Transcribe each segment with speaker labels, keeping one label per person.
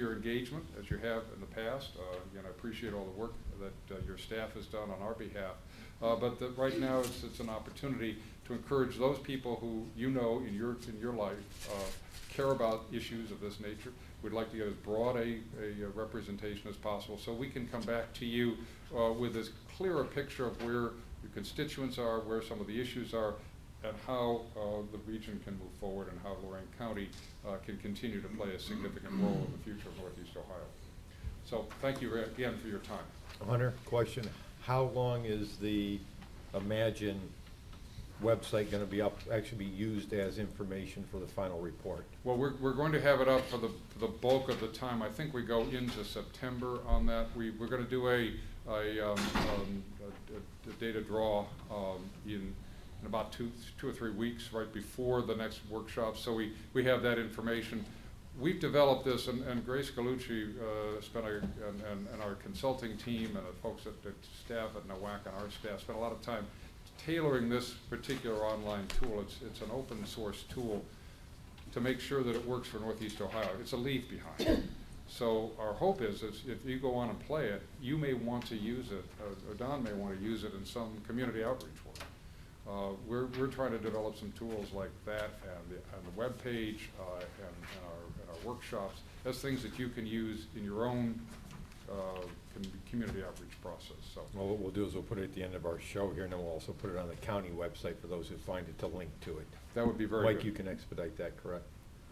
Speaker 1: your engagement as you have in the past. Uh, Again, I appreciate all the work that uh, your staff has done on our behalf. Uh, But that right now, it's, it's an opportunity to encourage those people who you know in your, in your life uh, care about issues of this nature. We'd like to get as broad a, a uh, representation as possible, so we can come back to you uh, with as clear a picture of where your constituents are, where some of the issues are, and how uh, the region can move forward and how Lorraine County uh, can continue to play a significant role in the future of Northeast Ohio. So thank you again for your time.
Speaker 2: Hunter, question, how long is the Imagine website gonna be up, actually be used as information for the final report?
Speaker 1: Well, we're, we're going to have it up for the, for the bulk of the time. I think we go into September on that. We, we're gonna do a, a, um, um, a- a- a data draw, um, in, in about two, two or three weeks, right before the next workshop, so we, we have that information. We've developed this, and, and Grace Galucci, uh, spent our, and, and- and our consulting team and the folks at, at staff at NOAC and our staff spent a lot of time tailoring this particular online tool. It's, it's an open source tool to make sure that it works for Northeast Ohio. It's a leave behind. So our hope is, is if you go on and play it, you may want to use it, uh, or- or Don may want to use it in some community outreach work. Uh, We're, we're trying to develop some tools like that and the, and the webpage, uh, and, and our, and our workshops, as things that you can use in your own, uh, com- community outreach process, so.
Speaker 2: Well, what we'll do is we'll put it at the end of our show here, and then we'll also put it on the county website for those who find it to link to it.
Speaker 1: That would be very good.
Speaker 2: Mike, you can expedite that, correct?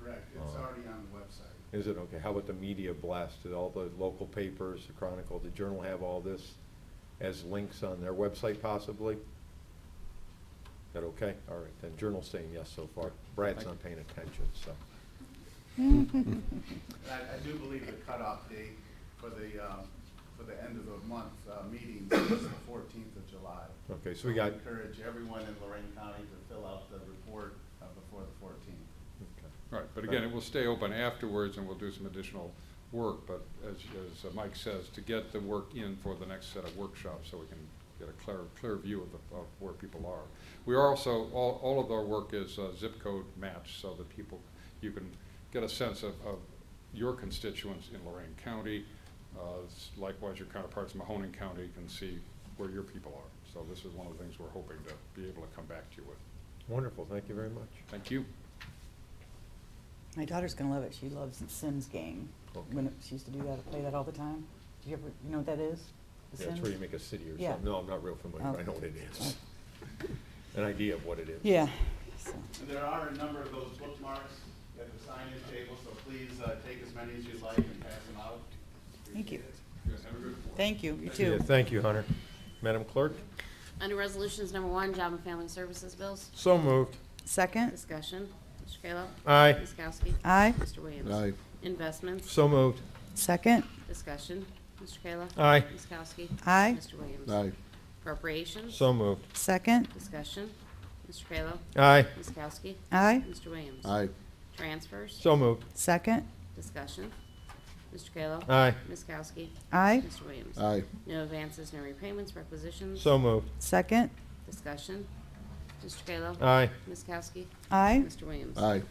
Speaker 3: Correct, it's
Speaker 2: Uh,
Speaker 3: already on the website.
Speaker 2: Is it, okay, how about the media blast, did all the local papers, the Chronicle, the Journal have all this as links on their website possibly? That okay? All right, then Journal's saying yes so far, Brad's not paying attention, so.
Speaker 3: And I, I do believe the cutoff date for the, um, for the end of the month, uh, meetings is the fourteenth of July.
Speaker 2: Okay, so we got, okay.
Speaker 3: Encourage everyone in Lorraine County to fill out the report, uh, before the fourteenth.
Speaker 1: Right, but again, it will stay open afterwards and we'll do some additional work, but as, as uh, Mike says, to get the work in for the next set of workshops so we can get a clear, clear view of, the, of where people are. We are also, all, all of our work is uh, zip code matched so that people, you can get a sense of, of your constituents in Lorraine County. Uh, s- Likewise, your counterparts in Mahoning County can see where your people are. So this is one of the things we're hoping to be able to come back to you with.
Speaker 2: Wonderful, thank you very much.
Speaker 1: Thank you.
Speaker 4: My daughter's gonna love it. She loves the Sims game.
Speaker 2: Okay.
Speaker 4: When it- she used to do that, play that all the time. Do you ever, you know what that is? The
Speaker 2: Yeah, it's
Speaker 4: Sims?
Speaker 2: where you make a city or
Speaker 4: Yeah. Oh.
Speaker 2: something, no, I'm not real familiar, but I know what it is. An idea of what it is.
Speaker 4: Yeah. so.
Speaker 3: And there are a number of those bookmarks at the sign-in table, so please, uh, take as many as you'd like and pass them out.
Speaker 4: Thank you.
Speaker 3: Appreciate it.
Speaker 4: Thank you. You
Speaker 2: Yeah,
Speaker 4: too.
Speaker 2: Thank you, Hunter. Madam Clerk?
Speaker 5: Under Resolutions Number One, Job and Family Services Bills,
Speaker 2: So moved.
Speaker 4: Second?
Speaker 5: discussion. Mr. Kayla.
Speaker 2: Aye.
Speaker 5: Ms. Kowski.
Speaker 4: Aye.
Speaker 5: Mr. Williams. Investments,
Speaker 2: So moved.
Speaker 4: Second?
Speaker 5: discussion. Mr. Kayla.
Speaker 2: Aye.
Speaker 5: Ms. Kowski.
Speaker 4: Aye.
Speaker 5: Mr. Williams.
Speaker 6: Aye,
Speaker 5: Appropriations,
Speaker 2: So moved.
Speaker 4: Second?
Speaker 5: discussion. Mr. Kayla.
Speaker 2: Aye.
Speaker 5: Ms. Kowski.
Speaker 4: Aye.
Speaker 5: Mr. Williams.
Speaker 6: aye,
Speaker 5: Transfers,
Speaker 2: So moved.
Speaker 4: Second?
Speaker 5: discussion. Mr. Kayla.
Speaker 2: Aye.
Speaker 5: Ms. Kowski.
Speaker 4: Aye.
Speaker 5: Mr. Williams.
Speaker 6: aye,
Speaker 5: No advances, no repayments, requisitions,
Speaker 2: So moved.
Speaker 4: Second?
Speaker 5: discussion. Mr. Kayla.
Speaker 2: Aye.
Speaker 5: Ms. Kowski.
Speaker 4: Aye.
Speaker 5: Mr. Williams.
Speaker 6: aye,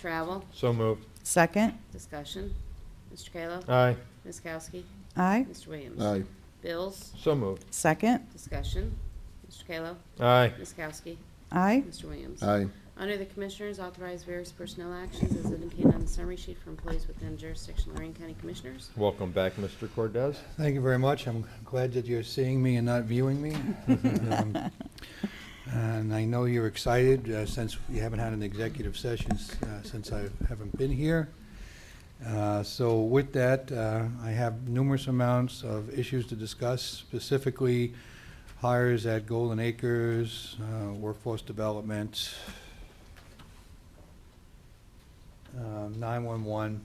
Speaker 5: Travel,
Speaker 2: So moved.
Speaker 4: Second?
Speaker 5: discussion. Mr. Kayla.
Speaker 2: Aye.
Speaker 5: Ms. Kowski.
Speaker 4: Aye.
Speaker 5: Mr. Williams.
Speaker 6: aye,
Speaker 5: Bills,
Speaker 2: So moved.
Speaker 4: Second?
Speaker 5: discussion. Mr. Kayla.
Speaker 2: Aye.
Speaker 5: Ms. Kowski.
Speaker 4: Aye.
Speaker 5: Mr. Williams.
Speaker 6: aye,
Speaker 5: Under the Commissioners, authorize various personnel actions as indicated on the summary sheet for employees within jurisdiction of Lorraine County Commissioners.
Speaker 2: Welcome back, Mr. Cordez.
Speaker 7: Thank you very much. I'm glad that you're seeing me and not viewing me. Um, And I know you're excited uh, since you haven't had an executive session s- uh, since I haven't been here. Uh, So with that, uh, I have numerous amounts of issues to discuss, specifically hires at Golden Acres, uh, workforce development, um, 911.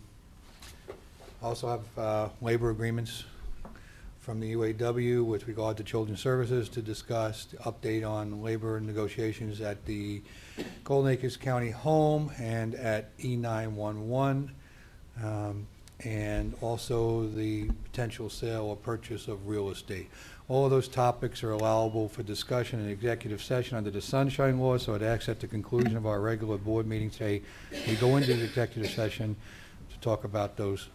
Speaker 7: Also have uh, labor agreements from the UAW with regard to Children's Services to discuss the update on labor negotiations at the Golden Acres County Home and at E E911, um, and also the potential sale or purchase of real estate. All of those topics are allowable for discussion in executive session under the Sunshine Law, so I'd ask at the conclusion of our regular board meeting today, we go into the executive session to talk about those